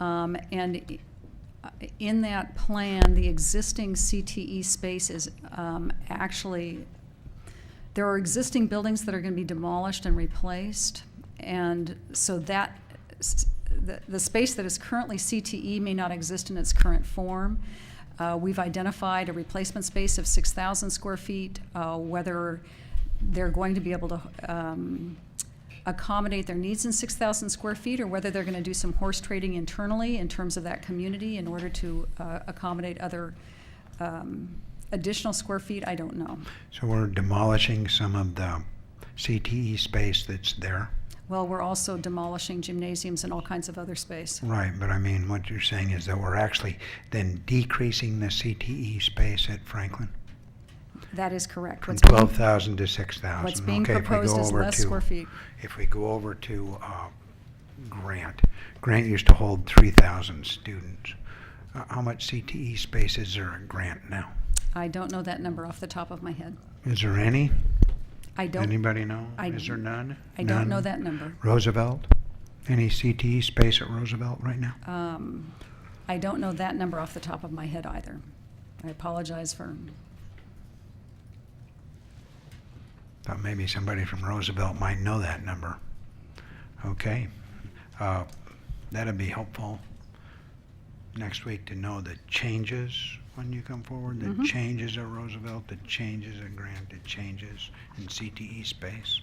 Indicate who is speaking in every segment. Speaker 1: Um, And i- in that plan, the existing CTE space is um, actually, there are existing buildings that are going to be demolished and replaced. And so that, s- the, the space that is currently CTE may not exist in its current form. Uh, We've identified a replacement space of 6,000 square feet, uh, whether they're going to be able to um, accommodate their needs in 6,000 square feet, or whether they're going to do some horse trading internally in terms of that community in order to uh, accommodate other um, additional square feet, I don't know.
Speaker 2: So we're demolishing some of the CTE space that's there.
Speaker 1: Well, we're also demolishing gymnasiums and all kinds of other space.
Speaker 2: Right, but I mean, what you're saying is that we're actually then decreasing the CTE space at Franklin
Speaker 1: That is correct.
Speaker 2: from
Speaker 1: What's being-
Speaker 2: 12,000 to 6,000.
Speaker 1: What's being
Speaker 2: Okay, if we go
Speaker 1: proposed is
Speaker 2: over
Speaker 1: less
Speaker 2: to-
Speaker 1: square feet.
Speaker 2: If we go over to uh, Grant, Grant used to hold 3,000 students. Uh, How much CTE space is there at Grant now?
Speaker 1: I don't know that number off the top of my head.
Speaker 2: Is there any?
Speaker 1: I don't,
Speaker 2: Anybody know?
Speaker 1: I-
Speaker 2: Is there none?
Speaker 1: I don't know
Speaker 2: None?
Speaker 1: that number.
Speaker 2: Roosevelt? Any CTE space at Roosevelt right now?
Speaker 1: Um, I don't know that number off the top of my head either. I apologize for,
Speaker 2: Thought maybe somebody from Roosevelt might know that number. Okay, uh, that'd be helpful next week to know the changes when you come forward, the
Speaker 1: Mhm.
Speaker 2: changes at Roosevelt, the changes at Grant, the changes in CTE space.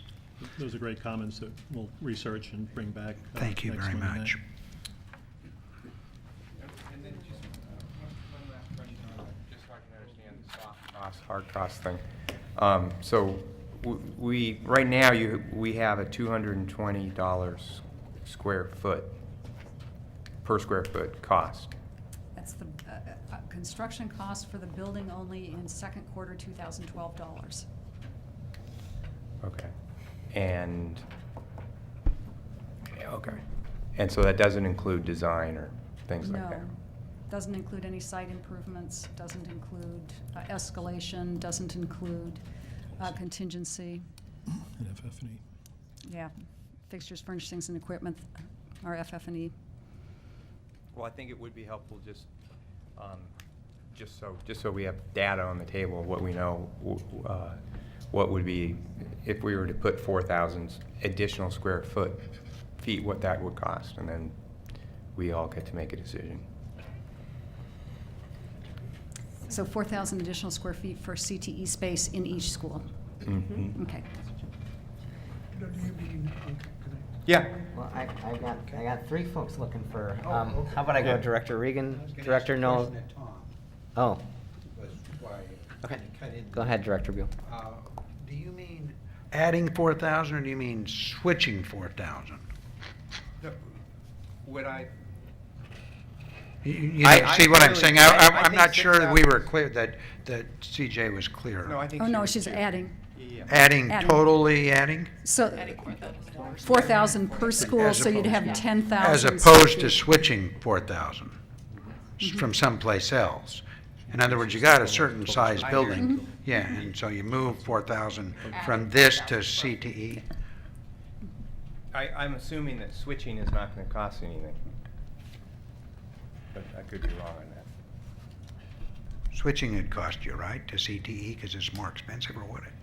Speaker 3: Those are great comments that we'll research and bring back. uh,
Speaker 2: Thank you
Speaker 3: next
Speaker 2: very
Speaker 3: Monday
Speaker 2: much.
Speaker 3: night.
Speaker 4: And then just uh, one one last question, on that, just so I can understand the soft cost, hard cost thing. Um, So w- we, right now, you, we have a $220 square foot, per square foot cost.
Speaker 1: that's the, uh, uh, uh, construction cost for the building only in second quarter 2012 dollars.
Speaker 4: Okay. And, yeah, okay. And so that doesn't include design or things like that?
Speaker 1: No, doesn't include any site improvements, doesn't include uh, escalation, doesn't include uh, contingency.
Speaker 3: And E- FF&E.
Speaker 1: Yeah, fixtures, furnishings, and equipment are FF&E.
Speaker 4: Well, I think it would be helpful just, um, just so, just so we have data on the table, of what we know, w- w- uh, what would be, if we were to put 4,000 additional square foot, feet, what that would cost, and then we all get to make a decision.
Speaker 1: So 4,000 additional square feet for CTE space in each school.
Speaker 4: Mhm.
Speaker 1: Okay.
Speaker 4: Yeah,
Speaker 5: Well, I, I got, I got three folks looking for, um, how about I go Director Regan, Director Noel? Oh, Okay. go ahead, Director Buell.
Speaker 2: uh, Do you mean adding 4,000 or do you mean switching 4,000?
Speaker 4: would I,
Speaker 2: You- You
Speaker 4: I-
Speaker 2: know,
Speaker 4: I
Speaker 2: see what I'm
Speaker 4: really-
Speaker 2: saying? I-
Speaker 4: I-
Speaker 2: I'm
Speaker 4: I
Speaker 2: I'm
Speaker 4: think
Speaker 2: not sure that we
Speaker 4: 6,000
Speaker 2: were clear, that, that CJ was clear.
Speaker 4: no, I think.
Speaker 1: Oh,
Speaker 4: she
Speaker 1: no,
Speaker 4: was
Speaker 1: she's
Speaker 4: too.
Speaker 1: adding.
Speaker 4: Yeah.
Speaker 2: Adding,
Speaker 1: Adding.
Speaker 2: totally adding?
Speaker 1: So 4,000 per school, so you'd have 10,000.
Speaker 2: As
Speaker 1: square
Speaker 2: opposed to
Speaker 1: feet.
Speaker 2: switching 4,000 s- from someplace else. In other words, you got a certain size
Speaker 4: I hear
Speaker 2: building, yeah, and so you move 4,000 from this to E. CTE.
Speaker 4: I, I'm assuming that switching is not gonna cost anything. But I could be wrong on that.
Speaker 2: Switching would cost you, right, to CTE because it's more expensive, or would it?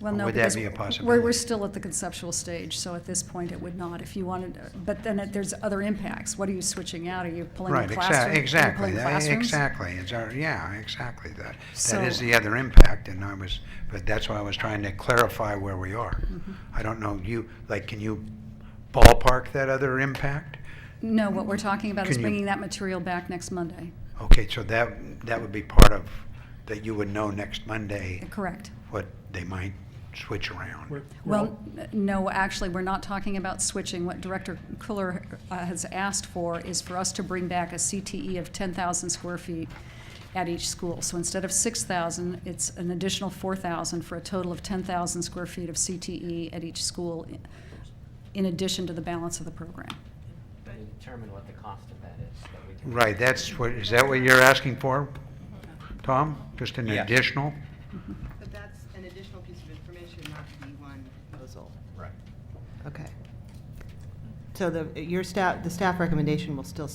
Speaker 1: Well, no,
Speaker 2: Would that
Speaker 1: because
Speaker 2: be a
Speaker 1: We're, we're
Speaker 2: possibility?
Speaker 1: still at the conceptual stage, so at this point, it would not, if you wanted, but then it- there's other impacts. What are you switching out? Are you pulling
Speaker 2: Right,
Speaker 1: the
Speaker 2: exa-
Speaker 1: classroom? are you
Speaker 2: exactly,
Speaker 1: pulling
Speaker 2: that-
Speaker 1: classrooms?
Speaker 2: Exactly, it's our, yeah, exactly, that, that is
Speaker 1: So-
Speaker 2: the other impact, and I was, but that's why I was trying to clarify where we are.
Speaker 1: Mm-hmm.
Speaker 2: I don't know, you, like, can you ballpark that other impact?
Speaker 1: No, what we're talking about is
Speaker 2: Can you-
Speaker 1: bringing that material back next Monday.
Speaker 2: Okay, so that, that would be part of, that you would know next Monday
Speaker 1: Correct.
Speaker 2: what they might switch
Speaker 3: We're-
Speaker 2: around.
Speaker 3: we're all-
Speaker 1: Well, n- no, actually, we're not talking about switching. What Director Kuller uh, has asked for is for us to bring back a CTE of 10,000 square feet at each school. So instead of 6,000, it's an additional 4,000 for a total of 10,000 square feet of CTE at each school i- in addition to the balance of the program.
Speaker 5: Determine what the cost of that is, that we can.
Speaker 2: Right, that's what, is that what you're asking for, Tom? Just an
Speaker 4: Yeah.
Speaker 2: additional?
Speaker 6: But that's an additional piece of information, not the one proposal.
Speaker 4: Right.
Speaker 7: Okay. So the, your staff, the staff recommendation will still